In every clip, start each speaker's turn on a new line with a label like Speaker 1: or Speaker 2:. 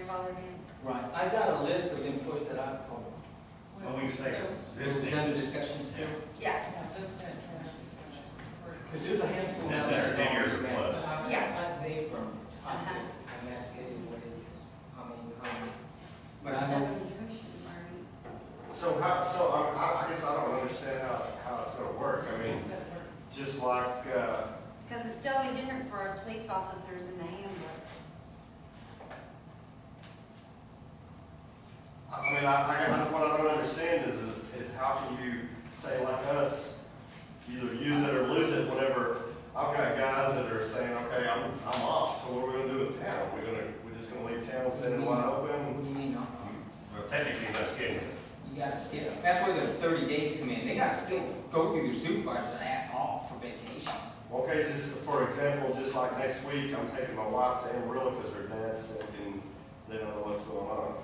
Speaker 1: grandfathered in.
Speaker 2: Right, I got a list of employees that I've called.
Speaker 3: Well, we can say
Speaker 4: Those-
Speaker 2: Is
Speaker 3: existing,
Speaker 2: under discussion still?
Speaker 1: Yeah,
Speaker 4: yeah, those that, uh, were-
Speaker 2: Because there's a handful now
Speaker 3: That-
Speaker 2: that
Speaker 3: that's
Speaker 2: is
Speaker 3: in your
Speaker 2: already ran.
Speaker 3: plus.
Speaker 2: I-
Speaker 1: Yeah.
Speaker 2: I named from,
Speaker 1: Uh-huh.
Speaker 2: obviously, I'm asking you what it is, I mean, how many. But I know,
Speaker 1: I
Speaker 5: So how, so um, I, I guess I don't understand how, how it's gonna work. I mean,
Speaker 4: those that were-
Speaker 5: just like, uh,
Speaker 1: Because it's totally different for our police officers in the handbook.
Speaker 5: I mean, I, I, I- what I don't understand is, is, is how can you say like us, either use it or lose it, whatever. I've got guys that are saying, okay, I'm, I'm off, so what are we gonna do with town? We're gonna, we're just gonna leave town sitting wide open?
Speaker 2: what do you mean, no?
Speaker 3: well, technically, that's getting,
Speaker 2: You gotta skip, that's where the thirty days come in, they gotta still go through their supervisors and ask all for vacation.
Speaker 5: Okay, just for example, just like next week, I'm taking my wife to Amarillo because her dad's sick and they don't know what's going on.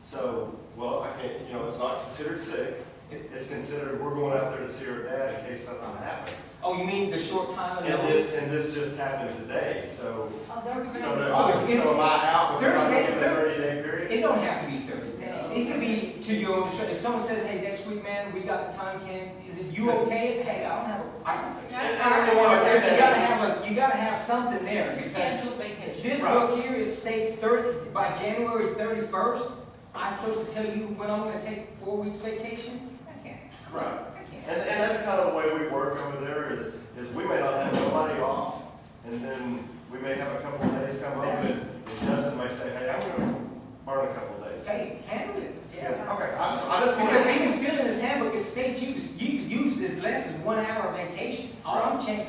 Speaker 5: So, well, I can't, you know, it's not considered sick. It's considered, we're going out there to see her dad in case something happens.
Speaker 2: Oh, you mean the short time of
Speaker 5: And
Speaker 2: notice?
Speaker 5: this, and this just happened today, so,
Speaker 4: Oh, they're
Speaker 5: so,
Speaker 4: gonna-
Speaker 5: so am I out because I'm in the thirty day period?
Speaker 2: It don't have to be thirty days, it can be to your own discretion, if someone says, hey, next week, man, we got the time can, you okay? Hey, I don't have, a- I don't.
Speaker 1: That's
Speaker 5: I don't
Speaker 1: not-
Speaker 5: wanna
Speaker 2: But
Speaker 5: do
Speaker 2: you gotta
Speaker 5: that.
Speaker 2: have a, you gotta have something there,
Speaker 4: It's a
Speaker 2: because
Speaker 4: scheduled vacation.
Speaker 2: This book here, it states thirty, by January thirty-first, I'm supposed to tell you when I'm gonna take four weeks vacation? I can't.
Speaker 5: Right.
Speaker 2: I
Speaker 5: And,
Speaker 2: can't.
Speaker 5: and that's kind of the way we work over there is, is we may not have nobody off, and then we may have a couple of days come up, and and Justin may say, hey, I'm gonna burn a couple of days.
Speaker 2: Hey, handle it.
Speaker 5: Yeah, okay, I just, I just want
Speaker 2: Because
Speaker 5: to.
Speaker 2: even still in this handbook, it states you, you use as less as one hour of vacation. All I'm checking,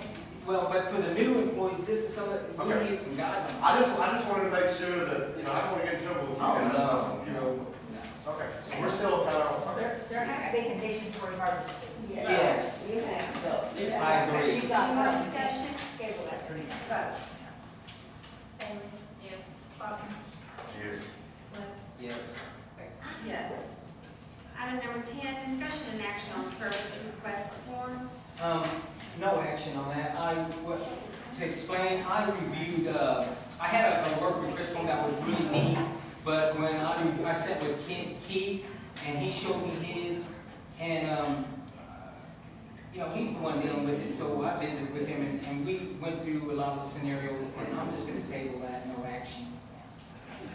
Speaker 2: well, but for the new employees, this is some of, we
Speaker 5: Okay.
Speaker 2: need some guidelines.
Speaker 5: I just, I just wanted to make sure that, you know, I don't want to get in trouble with you
Speaker 2: Oh,
Speaker 5: guys.
Speaker 2: no,
Speaker 5: you
Speaker 2: no,
Speaker 5: know.
Speaker 2: no.
Speaker 5: Okay, so we're still kind of, okay.
Speaker 6: They're, they're not vacation for emergencies.
Speaker 2: Yes.
Speaker 6: You have those.
Speaker 2: I agree.
Speaker 6: You
Speaker 1: Any
Speaker 6: got
Speaker 1: more
Speaker 6: emergency
Speaker 1: discussion?
Speaker 6: scheduled after that.
Speaker 1: Vote.
Speaker 4: Bailey? Yes. Bobby?
Speaker 3: she is
Speaker 2: Yes.
Speaker 1: Yes. Item number ten, discussion and action on service request forms.
Speaker 2: Um, no action on that. I, what, to explain, I reviewed, uh, I had a, a work request form that was really neat, but when I, re- I sat with Keith, Keith, and he showed me his, and, um, you know, he's the one dealing with it, so I visited with him, and, and we went through a lot of scenarios, and I'm just gonna table that, no action.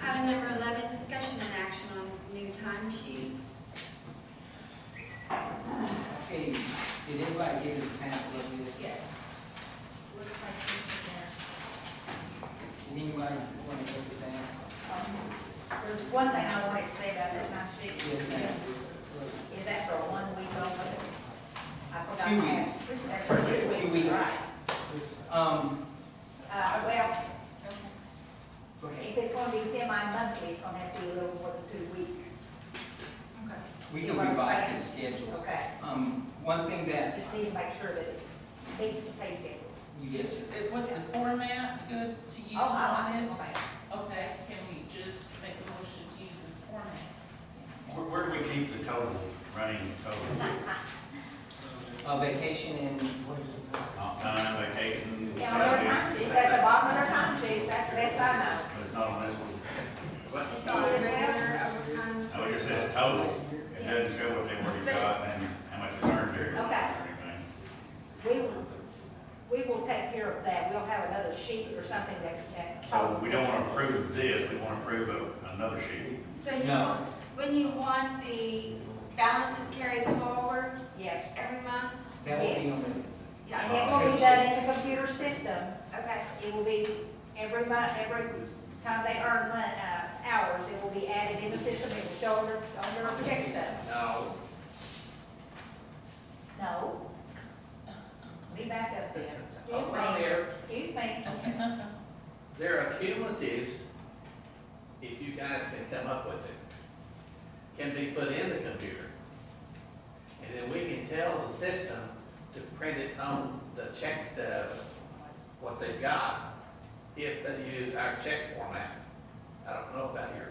Speaker 1: Item number eleven, discussion and action on new timesheets.
Speaker 2: Okay, did everybody get a sample of this?
Speaker 1: Yes.
Speaker 6: Looks like this is
Speaker 2: Did anybody wanna go to that?
Speaker 6: there. Um, There's one thing I would like to say about that time sheet.
Speaker 2: Yes, ma'am.
Speaker 6: Is that for one week only? I forgot
Speaker 2: Two
Speaker 6: to ask.
Speaker 2: weeks.
Speaker 6: This is for two weeks.
Speaker 2: Two weeks.
Speaker 6: Right.
Speaker 2: Um,
Speaker 6: Uh, well,
Speaker 2: Go ahead.
Speaker 6: if it's gonna be semi-monthly, it's gonna have to be a little more than two weeks.
Speaker 2: We can revise the schedule.
Speaker 6: Okay.
Speaker 2: Um, one thing that
Speaker 6: Just need to make sure that it's, it's the pay schedule.
Speaker 2: you
Speaker 4: Is,
Speaker 2: just,
Speaker 4: it- was the format good to you
Speaker 6: Oh, I
Speaker 4: on
Speaker 6: like it.
Speaker 4: this?
Speaker 6: Okay.
Speaker 4: Okay, can we just make a motion to use this format?
Speaker 3: Where, where do we keep the total, running total?
Speaker 2: uh, vacation and,
Speaker 3: Not Time, vacation,
Speaker 6: Yeah, on our
Speaker 3: salary,
Speaker 6: time sheet, at the bottom of our time sheet, that's the best I know.
Speaker 3: but it's not on this one.
Speaker 1: It's all regular overtime.
Speaker 3: I would just say it's total, it doesn't show what they already got and how much is earned there or
Speaker 6: Okay.
Speaker 3: anything.
Speaker 6: We will, we will take care of that, we'll have another sheet or something that, that.
Speaker 3: So we don't wanna approve this, we wanna approve a- another sheet.
Speaker 1: So you,
Speaker 2: No.
Speaker 1: want- when you want the balances carried forward
Speaker 6: Yes,
Speaker 1: every month?
Speaker 2: that will be on the,
Speaker 6: and
Speaker 3: Uh,
Speaker 1: Yeah,
Speaker 6: it will be done in the computer system,
Speaker 1: okay.
Speaker 6: it will be every month, every time they earn mon, uh, hours, it will be added in the system, it will show on their, on their projection.
Speaker 2: no,
Speaker 6: No. Be back up there,
Speaker 7: Oh, from there.
Speaker 6: excuse me, excuse me,
Speaker 7: There are cumulatives, if you guys can come up with it, can be put in the computer. And then we can tell the system to print it on the checks that, what they've got, if they use our check format. I don't know about your